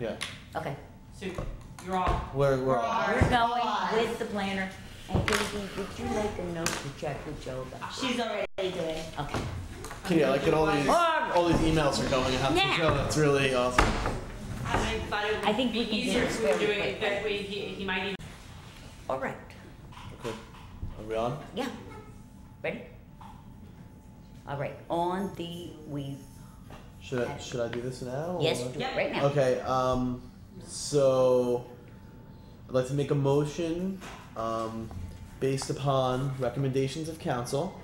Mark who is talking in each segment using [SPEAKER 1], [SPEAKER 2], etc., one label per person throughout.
[SPEAKER 1] Yeah,
[SPEAKER 2] Okay,
[SPEAKER 3] So you're all,
[SPEAKER 1] we're, we're all,
[SPEAKER 3] Right.
[SPEAKER 2] we're going with the planner. And Katie, would you make a note to check with Joe about?
[SPEAKER 4] She's already doing.
[SPEAKER 2] Okay.
[SPEAKER 1] yeah, like, and all these, all these emails are going out
[SPEAKER 2] Now.
[SPEAKER 1] to Joe, that's really awesome.
[SPEAKER 3] I thought it
[SPEAKER 2] I
[SPEAKER 3] would
[SPEAKER 2] think
[SPEAKER 3] be
[SPEAKER 2] we can do
[SPEAKER 3] easier
[SPEAKER 2] this
[SPEAKER 3] if we were
[SPEAKER 2] very
[SPEAKER 3] doing it
[SPEAKER 2] quickly.
[SPEAKER 3] that way, he, he might even.
[SPEAKER 2] All right,
[SPEAKER 1] Okay, are we on?
[SPEAKER 2] yeah. Ready? All right, on the, we,
[SPEAKER 1] Should I, should I do this now? or-
[SPEAKER 2] yes,
[SPEAKER 3] Yep.
[SPEAKER 2] right now.
[SPEAKER 1] Okay, um, so I'd like to make a motion, um, based upon recommendations of council.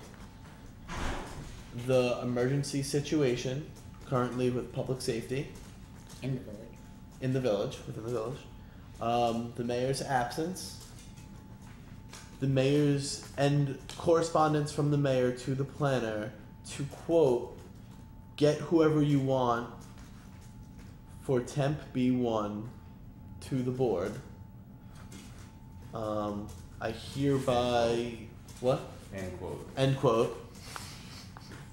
[SPEAKER 1] The emergency situation currently with public safety
[SPEAKER 2] In the village.
[SPEAKER 1] in the village, within the village, um, the mayor's absence, the mayor's and correspondence from the mayor to the planner to quote, get whoever you want for temp B1 to the board. Um, I hereby what?
[SPEAKER 5] End quote.
[SPEAKER 1] End quote.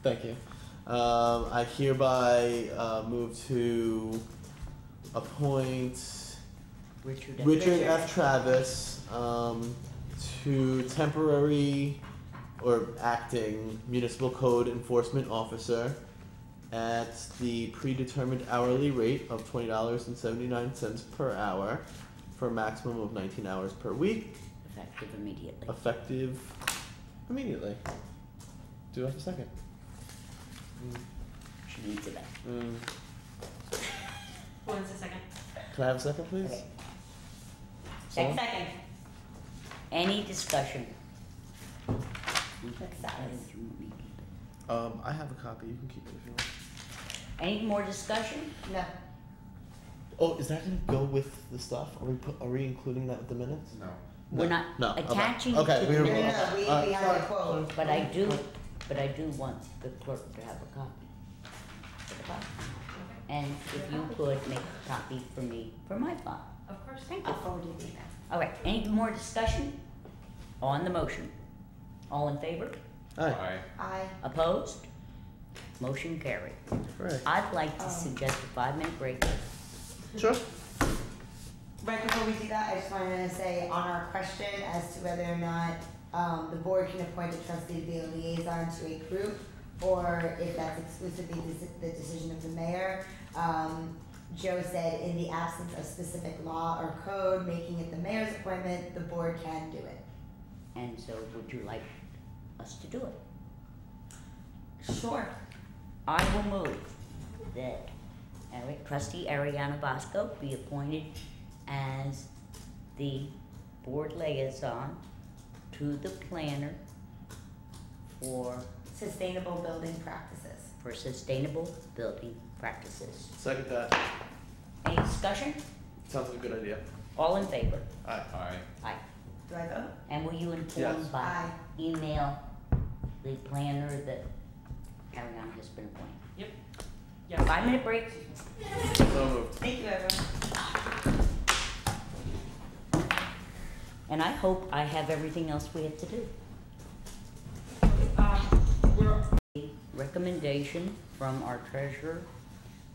[SPEAKER 1] Thank you. Um, I hereby uh, move to appoint
[SPEAKER 2] Richard.
[SPEAKER 1] Richard F. Travis um, to temporary or acting municipal code enforcement officer at the predetermined hourly rate of twenty dollars and seventy nine cents per hour for a maximum of nineteen hours per week,
[SPEAKER 2] Effective immediately.
[SPEAKER 1] effective immediately. Do I have a second?
[SPEAKER 2] She needs it up.
[SPEAKER 1] Mm.
[SPEAKER 3] When's the second?
[SPEAKER 1] Can I have a second, please?
[SPEAKER 2] Okay.
[SPEAKER 1] Someone?
[SPEAKER 4] Second.
[SPEAKER 2] Any discussion?
[SPEAKER 1] Um, I have a copy. You can keep it if you want.
[SPEAKER 2] Any more discussion?
[SPEAKER 4] No.
[SPEAKER 1] Oh, is that gonna go with the stuff? Are we put, are we including that with the minutes?
[SPEAKER 5] No.
[SPEAKER 2] We're not
[SPEAKER 1] No, okay.
[SPEAKER 2] attaching it
[SPEAKER 1] Okay,
[SPEAKER 2] to
[SPEAKER 1] we
[SPEAKER 2] the
[SPEAKER 1] were-
[SPEAKER 4] No, no,
[SPEAKER 2] minutes,
[SPEAKER 4] no, we,
[SPEAKER 1] Uh,
[SPEAKER 4] we have a quote.
[SPEAKER 2] but I do, but I do want the clerk to have a copy. for the file. And if you could make a copy for me, for my file.
[SPEAKER 3] Of course.
[SPEAKER 2] Thank
[SPEAKER 4] I
[SPEAKER 2] you.
[SPEAKER 4] forwarded you that.
[SPEAKER 2] All right, any more discussion on the motion? All in favor?
[SPEAKER 1] Alright,
[SPEAKER 4] I,
[SPEAKER 2] Opposed? Motion carried.
[SPEAKER 1] alright.
[SPEAKER 2] I'd like to
[SPEAKER 4] Um.
[SPEAKER 2] suggest a five-minute break.
[SPEAKER 1] Sure.
[SPEAKER 4] right before we do that, I just wanted to say on our question as to whether or not, um, the board can appoint a trustee to be a liaison to a group, or if that's exclusively the, the decision of the mayor. Um, Joe said, in the absence of specific law or code making it the mayor's appointment, the board can do it.
[SPEAKER 2] And so would you like us to do it?
[SPEAKER 4] Sure.
[SPEAKER 2] I will move that Ari- trustee Ariana Bosco be appointed as the board liaison to the planner for,
[SPEAKER 4] Sustainable building practices.
[SPEAKER 2] for sustainable building practices.
[SPEAKER 1] Second that.
[SPEAKER 2] Any discussion?
[SPEAKER 1] Sounds like a good idea.
[SPEAKER 2] All in favor?
[SPEAKER 1] Alright.
[SPEAKER 5] Aye.
[SPEAKER 2] Aye.
[SPEAKER 4] Do I vote?
[SPEAKER 2] And will you inform
[SPEAKER 1] Yes.
[SPEAKER 2] by
[SPEAKER 4] Aye.
[SPEAKER 2] email the planner that Ariana has been appointed?
[SPEAKER 3] Yes.
[SPEAKER 2] Five minute break?
[SPEAKER 1] So moved.
[SPEAKER 4] Thank you, everyone.
[SPEAKER 2] And I hope I have everything else we have to do.
[SPEAKER 3] Um, we're,
[SPEAKER 2] recommendation from our treasurer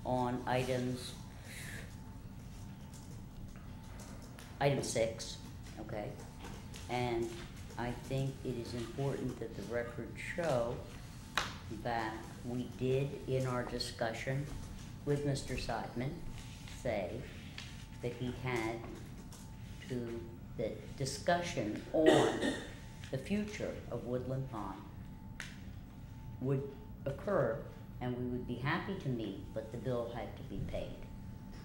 [SPEAKER 2] on items, item six, okay? And I think it is important that the record show that we did in our discussion with Mr. Seidman say that he had to, that discussion on the future of Woodland Pond would occur and we would be happy to meet, but the bill had to be paid.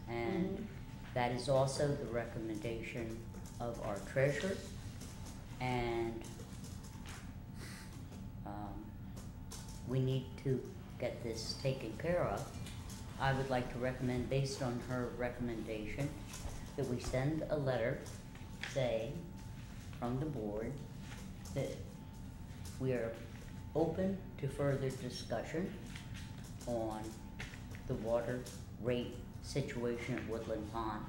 [SPEAKER 2] And that is also the recommendation of our treasurer and um, we need to get this taken care of. I would like to recommend, based on her recommendation, that we send a letter saying from the board that we are open to further discussion on the water rate situation at Woodland Pond.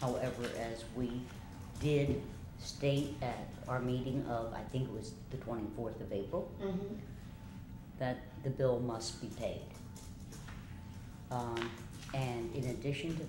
[SPEAKER 2] However, as we did state at our meeting of, I think it was the twenty-fourth of April,
[SPEAKER 4] Mm-hmm.
[SPEAKER 2] that the bill must be paid. Um, and in addition to